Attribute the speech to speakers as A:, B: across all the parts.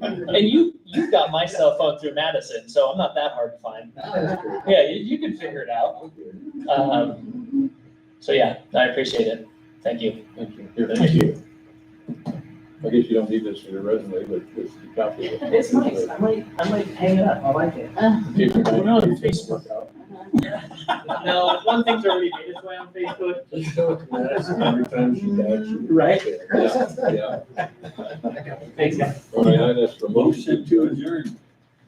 A: And you, you got my cell phone through Madison, so I'm not that hard to find. Yeah, you, you can figure it out. Um, so yeah, I appreciate it. Thank you.
B: Thank you. Here, thank you. I guess you don't need this for your resume, but it's the copy. of it.
C: It's nice, I might, I might hang it up, I like it.
B: Keep it.
A: We're not on Facebook. No, one thing's already made its way on Facebook.
B: Every time she died, she-
A: Right.
B: Yeah, yeah.
A: Thanks, guys.
B: All right, now that's the
D: Motion to adjourn.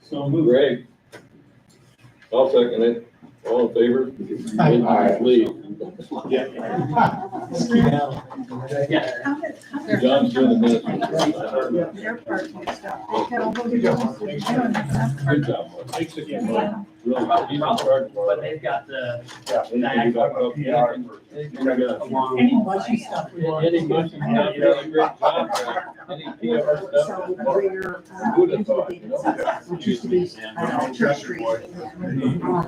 D: So moved.
B: Greg. I'll second it. All in favor?
E: Aye.
B: Lee.
A: Yeah.
B: John's doing the
E: Yeah.
B: minutes.
C: Their parking stuff.
B: They had a Good job, Mark.
D: Thanks again, Mark.
C: Yeah,
B: Really, he's in charge,
A: But
B: Mark.
A: they've got the,
B: Anything you got up here? You got a
C: any mushy stuff we want.
B: Any motion, you know, you did a great job, man. Any PR stuff,
C: So we're, uh,
B: who'd have thought, you know?
C: Which used to be, uh, Church Street. uh,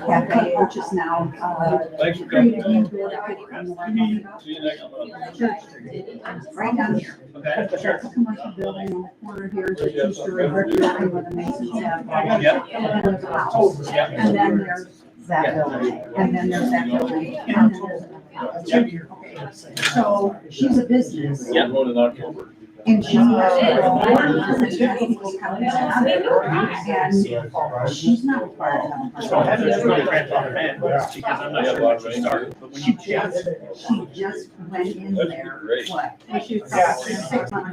C: Cafe, which is now, uh,
B: Thanks for
C: created
B: coming.
C: a really pretty one.
B: See you next month.
C: Church Street, right down here.
A: okay, sure.
C: It's a commercial building on the corner here, it's a two-story brick building with a mason's head.
A: Yeah.
C: And then there's a house, and then there's that building, and then there's that building, and then there's another house. Okay. So she's a business.
B: We're going in October.
C: And she's.
A: Yeah.
C: And she's not part of.
A: So I have this really grandfather man, because I'm
B: I
A: not
B: have
A: sure
B: a lot of
A: when she started, but when
C: She
A: you
C: just, she just went in there, what? She was six months